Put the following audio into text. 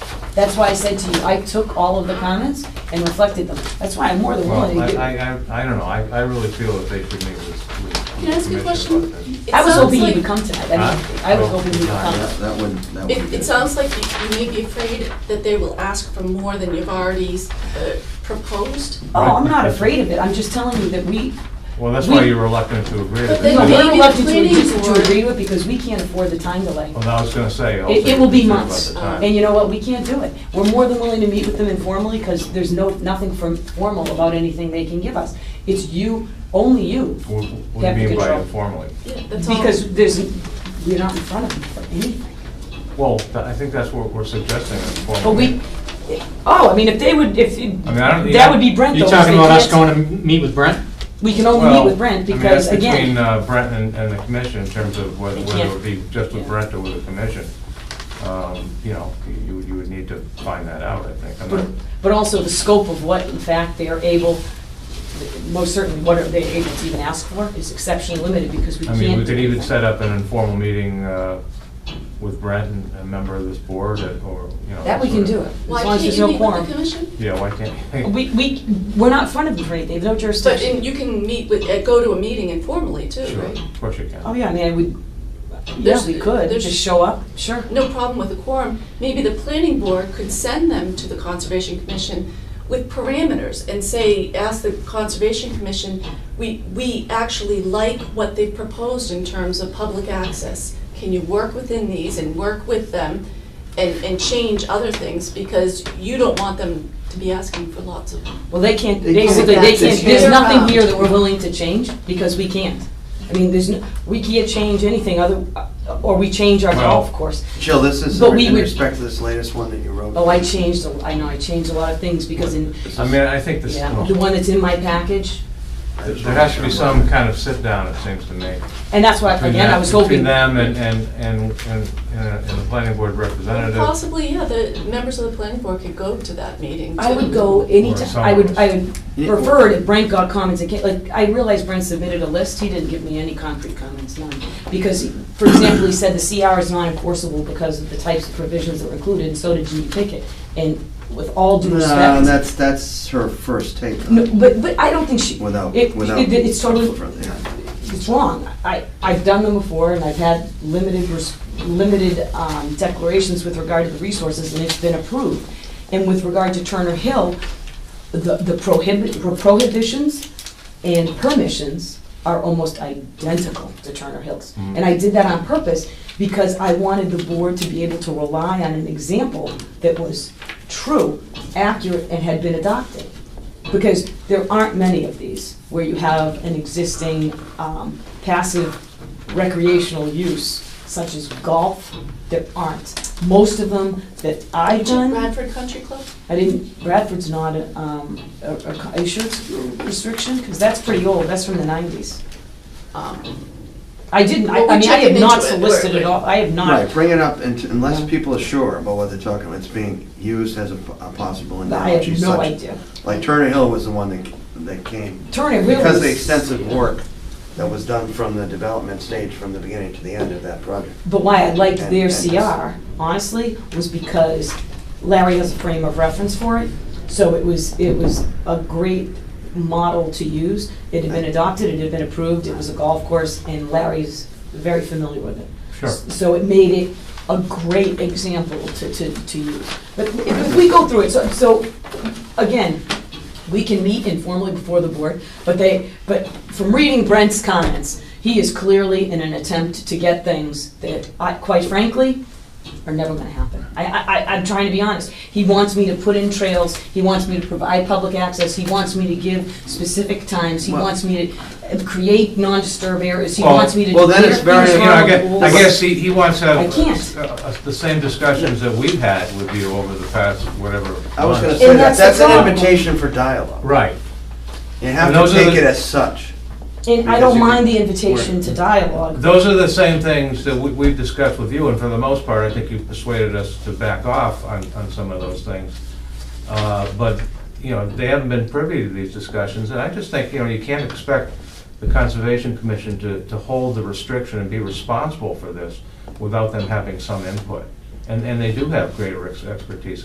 That's why I said to you, I took all of the comments and reflected them. That's why I'm more than willing Well, I, to do. I, I- I don't know, I, I really feel that they should meet with, with. Can I ask you a commission question? about this. It I was sounds hoping you like- would come tonight. I mean, Huh? I was Oh, hoping you would yeah, come. That that would, that would be It, good. it sounds like you, you may be afraid that they will ask for more than you've already uh, proposed. Oh, I'm not afraid of it. I'm just telling you that we, Well, that's why We- you're reluctant to agree But with they it. no, may- Well, we're maybe the reluctant to planning agree- to board- agree with because we can't afford the time delay. I was gonna say. also It, it will be about months. um, the time. And you know what? We can't do it. We're more than willing to meet with them informally because there's no, nothing from formal about anything they can give us. It's you, only you. What what They have do you to mean by control. informally? Yeah, that's all. Because there's, we're not in front of them for anything. Well, th- I think that's what we're suggesting, an informal But we, meeting. oh, I mean, if they would, if, I mean, I don't- that would be Brent though. 'cause You talking they about us can't- going to m- meet with Brent? We can only Well, meet with Brent I mean, because that's again, Between uh, Brent and, and the commission in terms of whether, They whether it can't. would be just with Yeah. Brent or with the commission. Um, You know, you, you would need to find that out, I think. I'm but- not- but also the scope of what in fact they are able, most certainly what are they able to even ask for is exceptionally limited because we I can't. mean, we could do even that. set up an informal meeting uh, with Brent and a member of this board that- or, you know. That we can sort of- do it, as Why long as can't there's you no meet with quorum. the commission? Yeah, why can't? We, we, we're not in front of them for anything, they have no But, jurisdiction. and you can meet with, uh, go to a meeting informally too, Sure, right? of course you can. Oh, yeah, I mean, I would, yeah, There's- we could, there's- just show up, sure. no problem with the quorum, maybe the planning board could send them to the Conservation Commission with parameters and say, ask the Conservation Commission, we, we actually like what they've proposed in terms of public access. Can you work within these and work with them and, and change other things? Because you don't want them to be asking for lots of Well, they can't, They can't basically, they adapt can't, this there's year. nothing here that we're willing to change, because we can't. I mean, there's, no we can't change anything other, or we change our Well- golf course. Jill, this is But we in would- respect to this latest one that you wrote. Oh, I changed, a- I know, I changed a lot of things, because in, I mean, I think this, yeah, the one that's in my package, there there has to be some kind of sit-down, it seems to me. and that's why, between again, I them- was hoping. Between them and, and, and, and and the planning board representative. Possibly, yeah, the members of the planning board could go to that meeting I would too. go any Or ti- I would, I would Yeah. prefer it if Brent got comments, again. like, I realize Brent submitted a list, he didn't give me any concrete comments, none. Because, for example, he said the CR is not enforceable because of the types of provisions that were included, and so did Judy Pickett. And with all due No, respect, that's, that's her first take. no, but, but I don't think she, Without, it, without. it- it's totally, Yeah. it's wrong. I, I've done them before, and I've had limited, res- limited um, declarations with regard to the resources, and it's been approved. And with regard to Turner Hill, the the prohibit, prohibitions and permissions are almost identical to Turner Hills. Mhm. And I did that on purpose, because I wanted the board to be able to rely on an example that was true, accurate, and had been adopted. Because there aren't many of these where you have an existing um, passive recreational use, such as golf. There aren't. Most of them that I've done, Bradford Country Club? I didn't, Bradford's not a, um, a, a co- are you sure it's a restriction? Because that's pretty old, that's from the nineties. Um, I didn't, I Well, we're I mean, I checking have not into it. solicited at all, I have not. Right, bring it up and- unless Yeah. people are sure about what they're talking about. It's being used as a p- a possible I analogy. have no such- idea. Like Turner Hill was the one that, that came. Turner really Because of the was- extensive work that was done from the development stage, from the beginning to the end of that project. But why I liked their And- and just- CR, honestly, was because Larry has a frame of reference for it. So it was, it was a great model to use. It had been adopted, it had been approved, it was a golf course, and Larry's very familiar with it. Sure. So it made it a great example to, to, to use. But if- if we go through it, so, so, again, we can meet informally before the board, but they, but from reading Brent's comments, he is clearly in an attempt to get things that, I- quite frankly, are never gonna happen. I, I, I- I'm trying to be honest. He wants me to put in trails, he wants me to provide public access, he wants me to give specific times, he Well- wants me to uh, create non-disturb areas, he Well- wants me to. well, then clear it's very- things You know, I around guess, pools. I guess he, he wants to I have can't. uh, uh, the same discussions that we've had with you over the past whatever. I was gonna months. say And that's that, the that's an problem. invitation for dialogue. Right. You have And to those are take the- it as such. And I Because don't you mind the can- invitation to dialogue. Those are the same things that we- we've discussed with you, and for the most part, I think you persuaded us to back off on, on some of those things. Uh, But, you know, they haven't been privy to these discussions, and I just think, you know, you can't expect the Conservation Commission to, to hold the restriction and be responsible for this without them having some input. And, and they do have greater ex- expertise